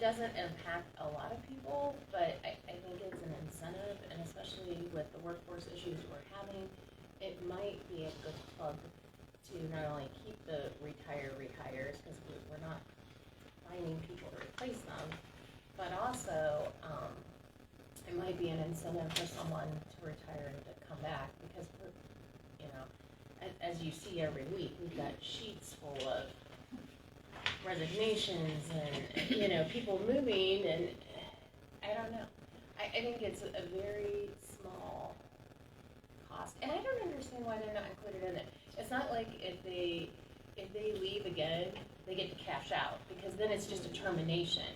doesn't impact a lot of people, but I, I think it's an incentive, and especially with the workforce issues we're having, it might be a good plug to not only keep the retire rehires, because we, we're not finding people to replace them, but also, um, it might be an incentive for someone to retire and to come back, because we're, you know, as, as you see every week, we've got sheets full of resignations and, you know, people moving and, I don't know. I, I think it's a very small cost, and I don't understand why they're not included in it. It's not like if they, if they leave again, they get to cash out, because then it's just a termination.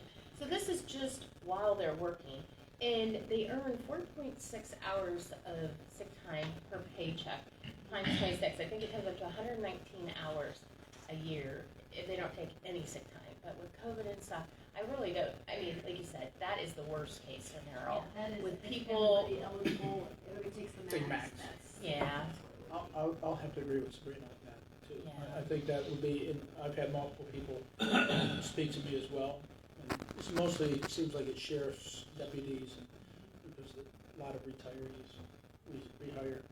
So this is just while they're working, and they earn four point six hours of sick time per paycheck, times twenty-six, I think it comes up to hundred and nineteen hours a year if they don't take any sick time. But with COVID and stuff, I really don't. I mean, like you said, that is the worst case scenario. That is, With if people- everybody eligible, everybody takes the Take max, max. that's. Yeah. I'll, I'll, I'll have to agree with Sabrina on that too. I- I Yeah. think that would be, and I've had multiple people speak to me as well. And It's mostly, it seems like it's sheriff's deputies and there's a lot of retirees, re- rehire.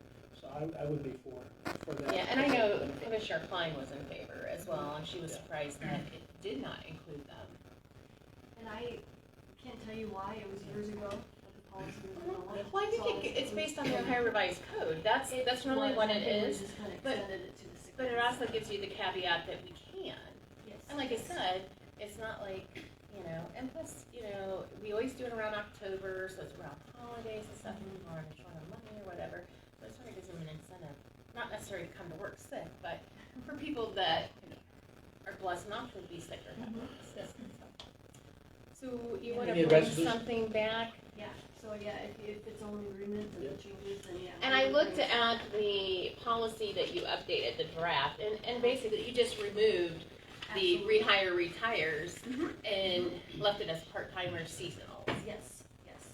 So I, I would be for, for that. Yeah, and I know Commissioner Klein was in favor as well, and she was surprised that it did not include them. And I can't tell you why, it was years ago, but the policy was abolished. Mm-hmm. Well, I so think was- it, it's based on the Ohio Revised Code. That's It that's normally what was, it I think we is. just kinda but- extended it to the sick But it days. also gives you the caveat that we can. Yes. And like I said, it's not like, you know, and plus, you know, we always do it around October, so it's around holidays and stuff, and people aren't short on money or whatever. So it sort of gives them an incentive, not necessarily to come to work sick, but for people that are blessed not to be sick or have sick and stuff. So you wanna Any bring resolution? something back? Yeah, so yeah, if, if it's on agreement and it changes, then yeah. And I we looked agree. at the policy that you updated, the draft, and, and basically you just removed the Absolutely. rehire retires and left it as part-time or seasonal. Yes, yes.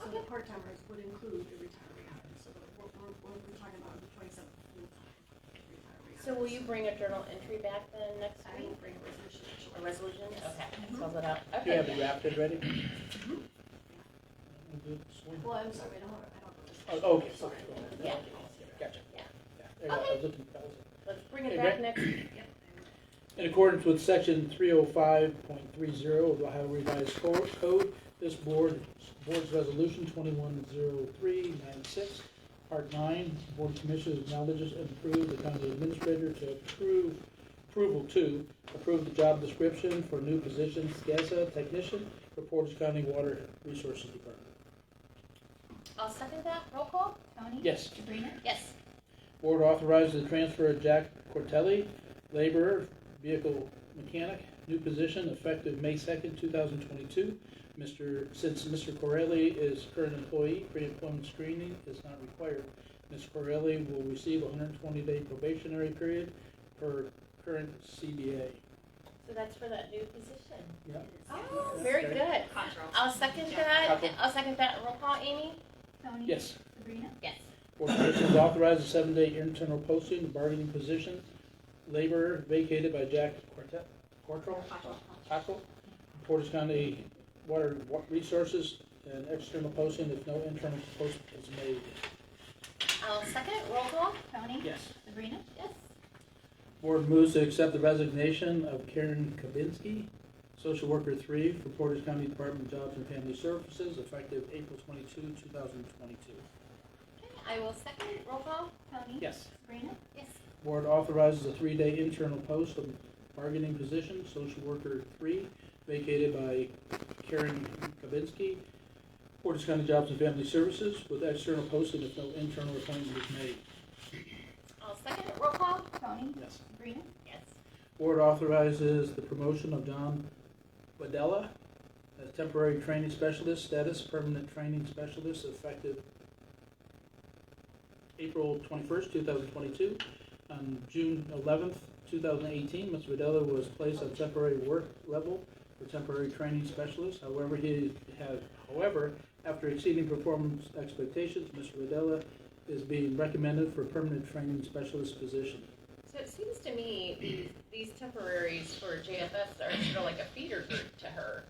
So the part-timers would include the retiree hours, so the- what we're, what we're talking about is the twenty-seven full-time retiree. So will hours. you bring a journal entry back then next I week? will bring a resolution. A resolution? Okay, Mhm. spells it out. Do you have it Okay. drafted ready? Sweet. Well, I'm sorry, I don't, have- I don't. have a Oh, okay, resolution. sorry. Yeah. Gotcha. Yeah. There you go. I was Okay. looking- I was looking. Let's bring it Hey, back Rick. next. Yep, I will. In accordance with section three oh five point three zero of the Ohio Revised Co- Code, this board, board's resolution twenty-one zero three nine six, part nine, board of commissioners acknowledges and approves the county administrator to approve, approval to approve the job description for new position SCASA technician for Portage County Water Resources Department. I'll second that. Roll call? Tony? Yes. Sabrina? Yes. Board authorizes the transfer of Jack Cortelli, laborer, vehicle mechanic, new position effective May second, two thousand twenty-two. Mr., since Mr. Corelli is current employee, pre-employment screening is not required. Ms. Corelli will receive a hundred and twenty-day probationary period per current CBA. So that's for that new position. Yeah. Oh, very Okay. good. I'll second that. Cockrell. I'll second that. Roll call, Amy? Tony? Yes. Sabrina? Yes. Board of Commissioners authorize a seven-day internal posting of bargaining position, laborer vacated by Jack Cortet, Cortrell? Cockle, Portage County Water Wa- Resources, and external posting if no internal post is made. I'll second. Roll call? Tony? Yes. Sabrina? Yes. Board moves to accept the resignation of Karen Kabinski, Social Worker Three, for Portage County Department of Jobs and Family Services, effective April twenty-two, two thousand twenty-two. Okay, I will second. Roll call? Tony? Yes. Sabrina? Yes. Board authorizes a three-day internal post of bargaining position, social worker three, vacated by Karen Kavinsky, Portage County Jobs and Family Services, with external posting if no internal appointment is made. I'll second. Roll call? Tony? Yes. Sabrina? Yes. Board authorizes the promotion of Don Badella as temporary training specialist status, permanent training specialist effective April twenty-first, two thousand twenty-two. On June eleventh, two thousand eighteen, Mr. Badella was placed on temporary work level for temporary training specialist. However, he had, however, after exceeding performance expectations, Mr. Badella is being recommended for permanent training specialist position. So it seems to me these, these temporaries for JFS are sort of like a feeder group to her.